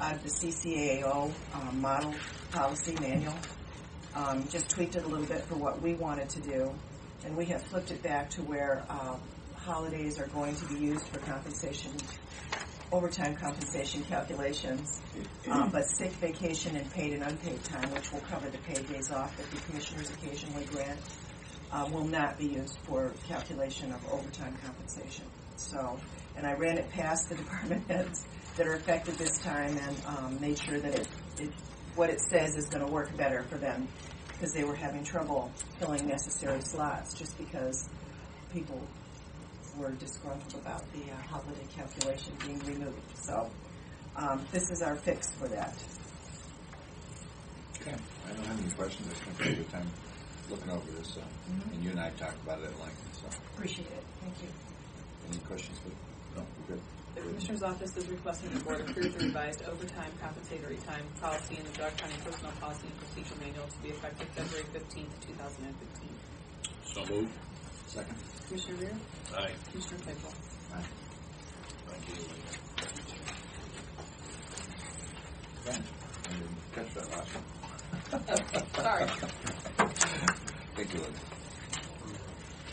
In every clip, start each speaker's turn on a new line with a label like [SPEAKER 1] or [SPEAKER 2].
[SPEAKER 1] out of Uh, the CCAO uh, model policy manual. Um, Just tweaked it a little bit for what we wanted to do, and we have flipped it back to where uh, holidays are going to be used for compensation, overtime compensation calculations, uh, but sick vacation and paid and unpaid time, which will cover the paid days off that the commissioners occasionally grant, uh, will not be used for calculation of overtime compensation. So, and I ran it past the department heads that are affected this time and um, made sure that it, it, what it says is going to work better for them because they were having trouble filling necessary slots just because people were disgruntled about the uh, holiday calculation being removed. So, um, this is our fix for that.
[SPEAKER 2] Okay, I don't have any questions, I spent a good time looking over this, so,
[SPEAKER 3] Mm-hmm.
[SPEAKER 2] and you and I have talked about it at length, so,
[SPEAKER 1] Appreciate it. Thank you.
[SPEAKER 2] any questions? Lou? No, we're good.
[SPEAKER 4] The Commissioner's Office is requesting the Board approve the revised overtime compensatory time policy in the Dog County Personnel Policy and Procedure Manual to be effective February fifteenth, two thousand and fifteen.
[SPEAKER 5] So moved.
[SPEAKER 2] Second?
[SPEAKER 4] Commissioner Rea?
[SPEAKER 5] Aye.
[SPEAKER 4] Commissioner Claypool?
[SPEAKER 2] Aye.
[SPEAKER 5] Thank you.
[SPEAKER 2] Okay. I didn't catch that last one.
[SPEAKER 4] Sorry.
[SPEAKER 2] Thank you, Lynn.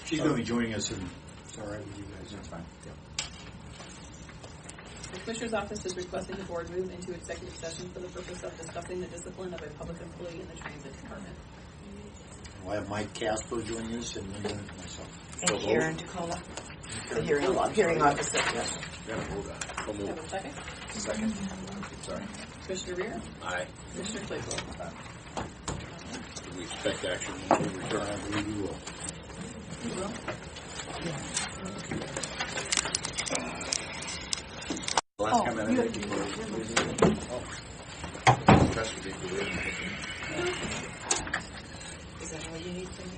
[SPEAKER 6] She's going to be joining us, and it's all right with you guys.
[SPEAKER 2] That's fine.
[SPEAKER 4] The Commissioner's Office is requesting the Board move into executive session for the purpose of discussing the discipline of a public employee in the Transit Department.
[SPEAKER 6] We'll have Mike Casper joining us, and then myself.
[SPEAKER 3] And
[SPEAKER 2] So moved.
[SPEAKER 3] Karen DeCola, the hearing, hearing officer.
[SPEAKER 2] Gotta hold on. So
[SPEAKER 4] Do I
[SPEAKER 2] moved.
[SPEAKER 4] have a second?
[SPEAKER 2] Second? Sorry.
[SPEAKER 4] Commissioner Rea?
[SPEAKER 5] Aye.
[SPEAKER 4] Commissioner Claypool?
[SPEAKER 5] Do we expect action when we
[SPEAKER 6] All
[SPEAKER 5] return?
[SPEAKER 6] right, we will.
[SPEAKER 2] Last comment I made before. Oh. Press would be good.
[SPEAKER 3] Is that all you need from me?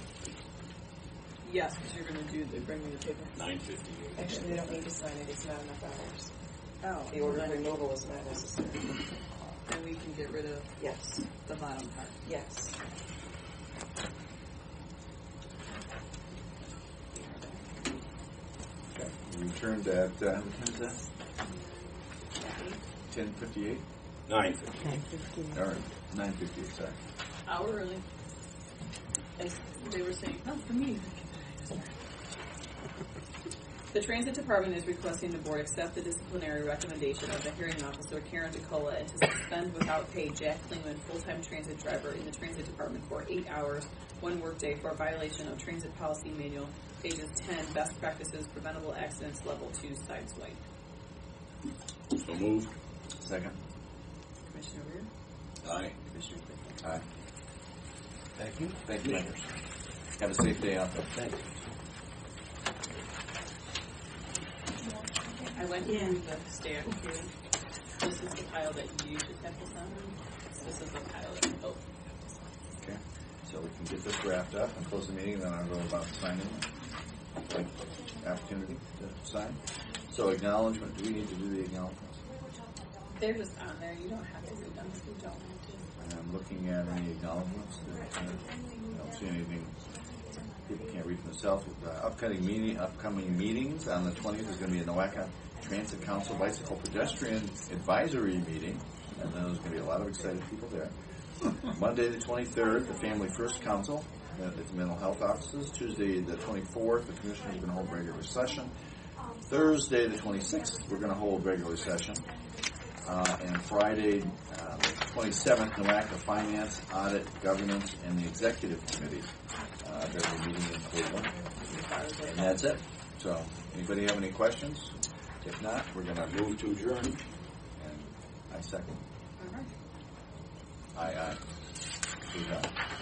[SPEAKER 4] Yes, because you're going to do the, bring me the paper.
[SPEAKER 5] Nine fifty-eight.
[SPEAKER 3] Actually, they don't need to sign it, it's not enough hours.
[SPEAKER 4] Oh.
[SPEAKER 3] The order of removal is not necessary.
[SPEAKER 4] Then we can get rid of
[SPEAKER 3] Yes,
[SPEAKER 4] the bottom part.
[SPEAKER 3] yes.
[SPEAKER 2] Okay, we returned at, uh, what time is that? Ten fifty-eight?
[SPEAKER 5] Nine fifty.
[SPEAKER 2] Or nine fifty-eight, sorry.
[SPEAKER 4] hour early. And they were saying, "Oh, not for me. The transit department is requesting the board accept the disciplinary recommendation of the hearing officer Karen DeCola and to suspend without pay Jack Klingman, full-time transit driver in the transit department for eight hours, one workday for violation of transit policy manual, pages ten, best practices, preventable accidents, level two, side swipe.
[SPEAKER 5] So moved.
[SPEAKER 2] Second?
[SPEAKER 4] Commissioner Rea?
[SPEAKER 5] Aye.
[SPEAKER 4] Commissioner Claypool?
[SPEAKER 2] Aye.
[SPEAKER 6] Thank you.
[SPEAKER 2] Thank you, Anders. Have a safe day out there. Thanks.
[SPEAKER 4] I went through the stamp here. This is the pile that you should have this on. This is the pile that, oh,
[SPEAKER 2] Okay, so we can get this wrapped up and close the meeting, then I'll go about signing. Like, Opportunity to sign. So acknowledgement, do we need to do the acknowledgements?
[SPEAKER 4] they're just on there. You don't have to read them if you don't want to.
[SPEAKER 2] And I'm looking at any acknowledgements. that- I don't see anything. People can't read for themselves. Uh, Upcoming meeting, upcoming meetings on the twentieth is gonna be a NOACA Transit Council Bicycle Pedestrian Advisory Meeting. And then there's gonna be a lot of excited people there. Monday, the twenty-third, the Family First Council uh, at the mental health offices. Tuesday, the twenty-fourth, the commissioners are gonna hold regular session. Thursday, the twenty-sixth, we're gonna hold regular session. Uh, and Friday, uh, the 27th, NOACA Finance, Audit, Governance, and the Executive Committee. Uh, there's a meeting in Cleveland. And that's it. So, anybody have any questions? If not, we're going to move to adjourn. And I second.
[SPEAKER 4] All right.
[SPEAKER 2] Aye, aye. Good job.